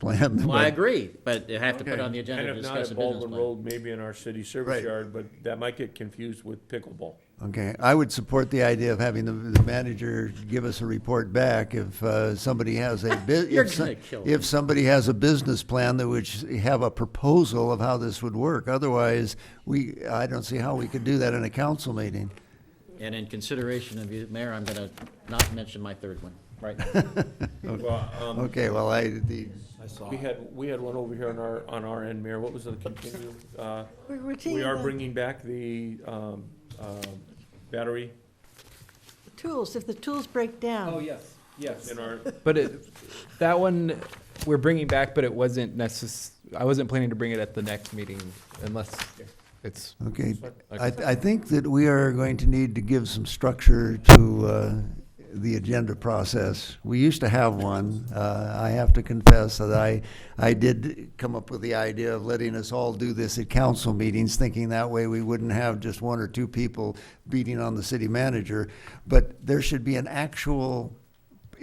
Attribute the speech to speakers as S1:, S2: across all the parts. S1: plan.
S2: Well, I agree, but you have to put
S1: Okay.
S2: on the
S3: And
S2: agenda to
S3: if not
S2: discuss a
S3: at
S2: business
S3: Baldwin
S2: plan.
S3: Road, maybe in our city
S1: Right.
S3: service yard, but that might get confused with pickleball.
S1: Okay, I would support the idea of having the, the manager give us a report back if, uh, somebody has a bu-
S2: You're
S1: if so-
S2: gonna kill
S1: If somebody has a business plan that would sh- have a proposal of how this would work, otherwise, we, I don't see how we could do that in a council meeting.
S2: And in consideration of you, Mayor, I'm gonna not mention my third one, right?
S3: Well, um,
S1: Okay, well, I, the,
S3: We had, we had one over here on our, on our end, Mayor, what was the continue? uh,
S4: We're- we're
S3: We
S4: taking
S3: are
S4: the
S3: bringing back the um, uh, battery
S4: Tools, if the tools break down.
S5: Oh, yes, yes.
S3: in our,
S6: But it, that one we're bringing back, but it wasn't necess, I wasn't planning to bring it at the next meeting unless it's,
S1: okay, I, I think that we are going to need to give some structure to, uh, the agenda process. We used to have one. Uh, I have to confess that I, I did come up with the idea of letting us all do this at council meetings, thinking that way we wouldn't have just one or two people beating on the city manager. But there should be an actual,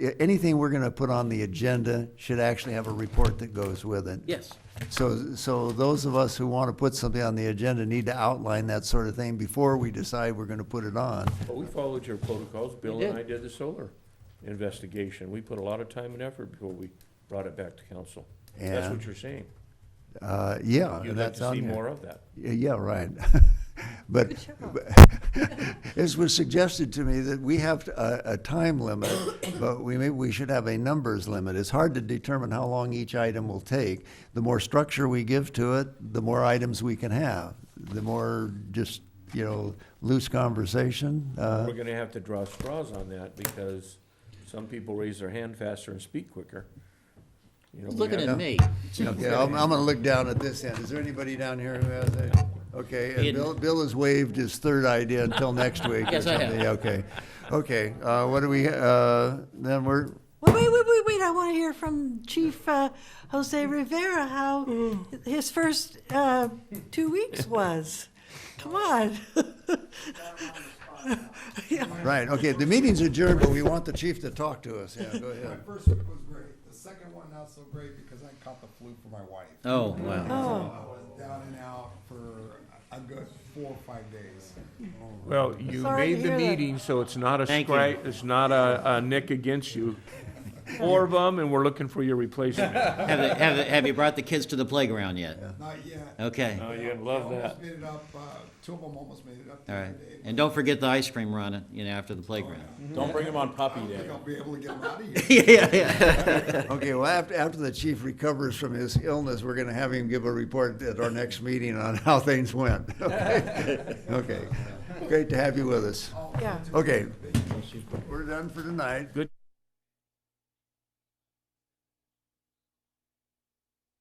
S1: a- anything we're gonna put on the agenda should actually have a report that goes with it.
S2: Yes,
S1: So, so those of us who want to put something on the agenda need to outline that sort of thing before we decide we're going to put it on.
S3: but we followed your protocols, Bill
S2: We
S3: and I
S2: did.
S3: did the solar investigation. We put a lot of time and effort before we brought it back to council. That's
S1: Yeah.
S3: what you're saying.
S1: Uh, yeah, and
S3: You'd like
S1: that's
S3: to
S1: on
S3: see
S1: here.
S3: more of that.
S1: Yeah, yeah, right. But it was suggested to me that we have a, a time limit, but we may, we should have a numbers limit. It's hard to determine how long each item will take. The more structure we give to it, the more items we can have. The more just, you know, loose conversation, uh,
S3: We're gonna have to draw straws on that because some people raise their hand faster and speak quicker. You know, we
S2: looking
S3: have-
S2: at me.
S1: Okay, I'm, I'm gonna look down at this end. Is there anybody down here who has a, okay, and Bill, Bill has waived his third idea until next week or
S2: Yes, I have.
S1: something, okay. Okay, uh, what do we, uh, then we're,
S4: Wait, wait, wait, wait, wait, I want to hear from Chief uh, Jose Rivera how his first uh, two weeks was. Come on. Yeah.
S1: right, okay, the meeting's adjourned, but we want the chief to talk to us, yeah, go ahead.
S7: My first week was great. The second one not so great because I caught the flu for my wife.
S2: Oh, wow.
S7: I
S4: Oh,
S7: was down and out for a good four or five days. Oh,
S3: Well, you
S4: Sorry
S3: made
S4: to
S3: the
S4: hear that.
S3: meeting, so it's not a
S2: Thank you.
S3: strike, it's not a, a nick against you. Four of them, and we're looking for your replacement.
S2: Have, they- have, they- have you brought the kids to the playground yet?
S7: Not yet.
S2: Okay,
S3: Oh, you're gonna
S7: I
S3: love that.
S7: almost made it up. Uh, two of them almost made it up. the
S2: all
S7: other
S2: right.
S7: day.
S2: And don't forget the ice cream run, you know, after the playground.
S3: Oh.
S8: Don't bring him on
S7: I
S8: Puppy
S7: don't
S8: Day.
S7: think I'll be able to get them out of here.
S2: Yeah, yeah, yeah.
S1: Okay, well, after, after the chief recovers from his illness, we're gonna have him give a report at our next meeting on how things went, okay? Okay, great to have you with us.
S4: yeah.
S1: Okay, we're done for tonight.